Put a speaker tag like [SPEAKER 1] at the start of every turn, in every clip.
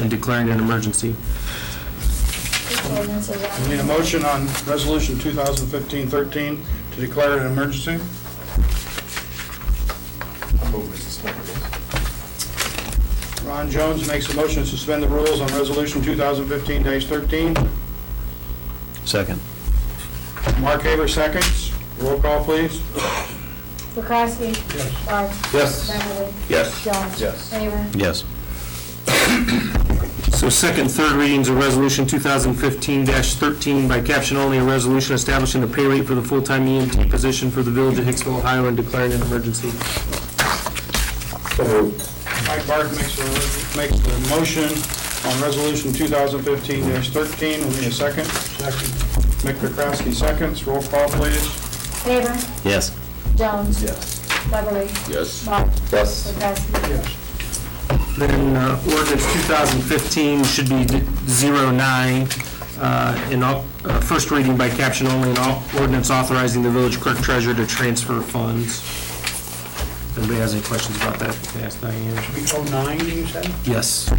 [SPEAKER 1] and declaring an emergency.
[SPEAKER 2] This ordinance is
[SPEAKER 3] We Need a
[SPEAKER 2] on,
[SPEAKER 3] motion on Resolution 2015-13 to declare an emergency? Ron Jones makes a motion to suspend the rules on Resolution 2015-13.
[SPEAKER 4] Second.
[SPEAKER 3] Mark Haver seconds. Roll call, please.
[SPEAKER 2] McCrasky? Yes. Bart?
[SPEAKER 3] Yes.
[SPEAKER 2] Beverly?
[SPEAKER 3] Yes.
[SPEAKER 2] Jones?
[SPEAKER 3] Yes.
[SPEAKER 2] Favor?
[SPEAKER 4] Yes.
[SPEAKER 1] So second, third readings of Resolution 2015-13 by caption only, a resolution establishing the pay rate for the full-time EMT position for the village of Hicksville, Ohio, and declaring an emergency.
[SPEAKER 3] Mike Bart makes a, makes the motion on Resolution 2015-13. We need a second. Second. Mick McCrasky seconds. Roll call, please.
[SPEAKER 2] Favor?
[SPEAKER 4] Yes.
[SPEAKER 2] Jones? Yes. Beverly? Yes. Bart? Yes. McCrasky?
[SPEAKER 1] Then uh, ordinance 2015 should be d- 09, uh, in all, uh, first reading by caption only, and all ordinance authorizing the village clerk treasurer to transfer funds. If Anybody has any questions about that, you can ask Diane.
[SPEAKER 3] 09, you said?
[SPEAKER 1] Yes.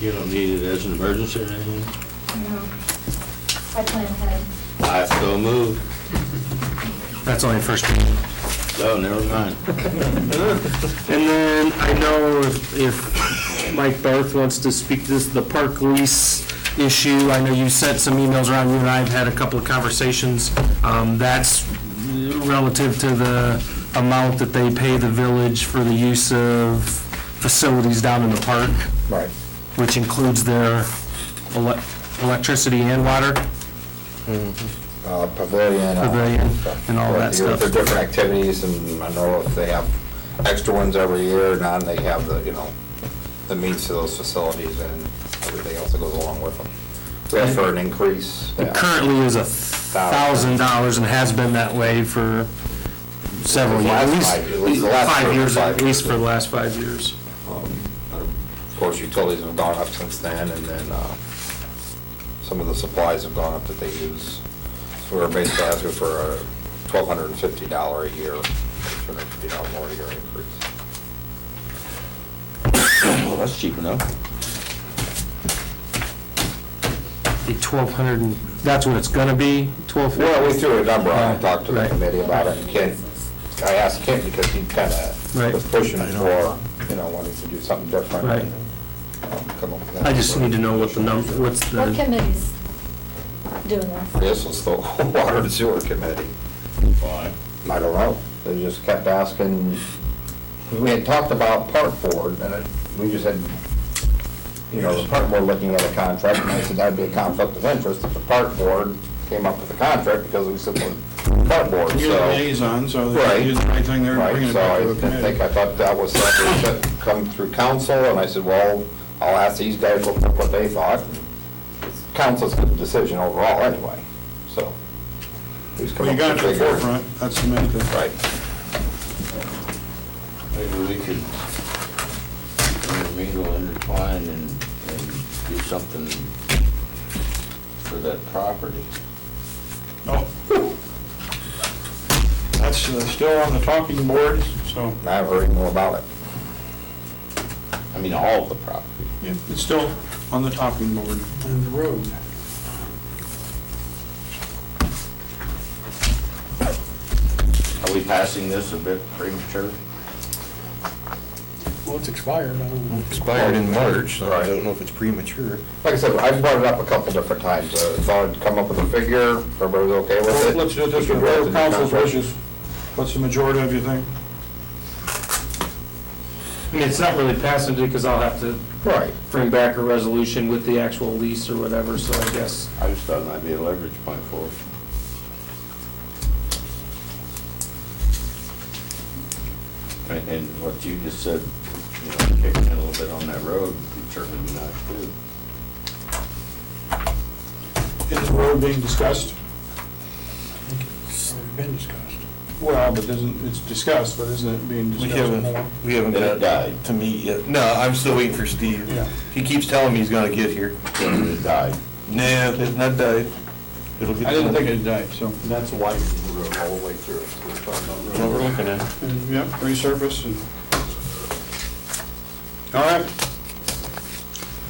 [SPEAKER 5] You don't need it as an emergency or anything?
[SPEAKER 2] No. I plan ahead.
[SPEAKER 5] I still move.
[SPEAKER 1] That's only first reading.
[SPEAKER 5] Oh, never mind.
[SPEAKER 1] And then I know if- if Mike Barth wants to speak to this, the park lease issue, I know you sent some emails around, you and I have had a couple of conversations. Um, That's relative to the amount that they pay the village for the use of facilities down in the park. Right. Which includes their elec- electricity and water
[SPEAKER 6] uh, pavilion. uh,
[SPEAKER 1] pavilion and all that
[SPEAKER 6] They're
[SPEAKER 1] stuff.
[SPEAKER 6] different activities, and I know if they have extra ones every year, or not, they have the, you know, the means to those facilities and everything else that goes along with them. We asked for an increase.
[SPEAKER 1] It currently is a thousand dollars and has been that way for several years, at
[SPEAKER 6] Last
[SPEAKER 1] least,
[SPEAKER 6] five- at least the last
[SPEAKER 1] five
[SPEAKER 6] four or
[SPEAKER 1] years,
[SPEAKER 6] five
[SPEAKER 1] at least
[SPEAKER 6] years.
[SPEAKER 1] for the last five years.
[SPEAKER 6] Of course, utilities have gone up since then, and then uh, some of the supplies have gone up that they use. So we're basically asking for a $1,250 a year, $250 more a year increase.
[SPEAKER 5] Well, that's cheap enough.
[SPEAKER 1] The twelve hundred, that's what it's gonna be, twelve
[SPEAKER 6] Well, we
[SPEAKER 1] fifty?
[SPEAKER 6] threw a number on, it, talked to the
[SPEAKER 1] Right.
[SPEAKER 6] committee about it, and Kent, I asked Kent because he kind of
[SPEAKER 1] Right.
[SPEAKER 6] was pushing for, you know, wanting to do something different.
[SPEAKER 1] Right.
[SPEAKER 6] Um, come up with that.
[SPEAKER 1] I just need to know what the number, what's
[SPEAKER 2] What
[SPEAKER 1] the,
[SPEAKER 2] committee's doing this?
[SPEAKER 6] This is the Water and Sewer Committee. I don't know, they just kept asking, we had talked about park board, and it- we just had, you know, the park board looking at a contract, and I said that'd be a conflict of interest if the park board came up with a contract, because we said, we park board, so.
[SPEAKER 3] You're the liaison, so they
[SPEAKER 6] Right.
[SPEAKER 3] do the right thing there and bring
[SPEAKER 6] Right,
[SPEAKER 3] it
[SPEAKER 6] so
[SPEAKER 3] back
[SPEAKER 6] I
[SPEAKER 3] to the
[SPEAKER 6] didn't think, I
[SPEAKER 3] committee.
[SPEAKER 6] thought that was something that come through council, and I said, well, I'll ask these guys what what they thought. Council's the decision overall anyway, so. who's come
[SPEAKER 3] Well, you
[SPEAKER 6] up
[SPEAKER 3] got it
[SPEAKER 6] with
[SPEAKER 3] to the
[SPEAKER 6] figure?
[SPEAKER 3] forefront, that's the main thing.
[SPEAKER 6] Right.
[SPEAKER 5] Maybe we could intermingle, intertwine, and, and do something for that property.
[SPEAKER 3] Oh. That's uh, still on the talking board, so
[SPEAKER 6] And I haven't heard any more about it.
[SPEAKER 5] I mean, all of the property.
[SPEAKER 3] it's still on the talking board. And the road.
[SPEAKER 5] Are we passing this a bit premature?
[SPEAKER 7] Well, it's expired, I don't know.
[SPEAKER 6] Expired in March, so I don't
[SPEAKER 4] know if it's premature.
[SPEAKER 6] Like I said, I've brought it up a couple different times, uh, thought I'd come up with a figure, everybody was okay with it.
[SPEAKER 3] Let's do it this
[SPEAKER 6] We
[SPEAKER 3] way,
[SPEAKER 6] could write the
[SPEAKER 3] whatever
[SPEAKER 6] new
[SPEAKER 3] council's
[SPEAKER 6] contract.
[SPEAKER 3] wishes, what's the majority of you think?
[SPEAKER 1] I mean, it's not really passing because I'll have to
[SPEAKER 6] Right.
[SPEAKER 1] bring back a resolution with the actual lease or whatever, so I guess.
[SPEAKER 5] I just thought it might be a leverage point for us. And, and what you just said, you know, kicking it a little bit on that road, would certainly be nice too.
[SPEAKER 3] Is the road being discussed?
[SPEAKER 7] It's already been discussed.
[SPEAKER 3] Well, but isn't, it's discussed, but isn't it being
[SPEAKER 8] We
[SPEAKER 3] discussed more?
[SPEAKER 8] haven't, we haven't
[SPEAKER 5] Then it
[SPEAKER 8] got
[SPEAKER 5] died,
[SPEAKER 8] to meet yet. No, I'm still waiting for Steve.
[SPEAKER 3] Yeah.
[SPEAKER 8] He keeps telling me he's gonna get here.
[SPEAKER 5] then it died.
[SPEAKER 8] Nah, it's not died. It'll get.
[SPEAKER 3] I didn't
[SPEAKER 8] done.
[SPEAKER 3] think it died, so,
[SPEAKER 6] That's why we wrote all the way through. We're talking about road.
[SPEAKER 8] What we're looking at.
[SPEAKER 3] and, yep, resurface and. All right,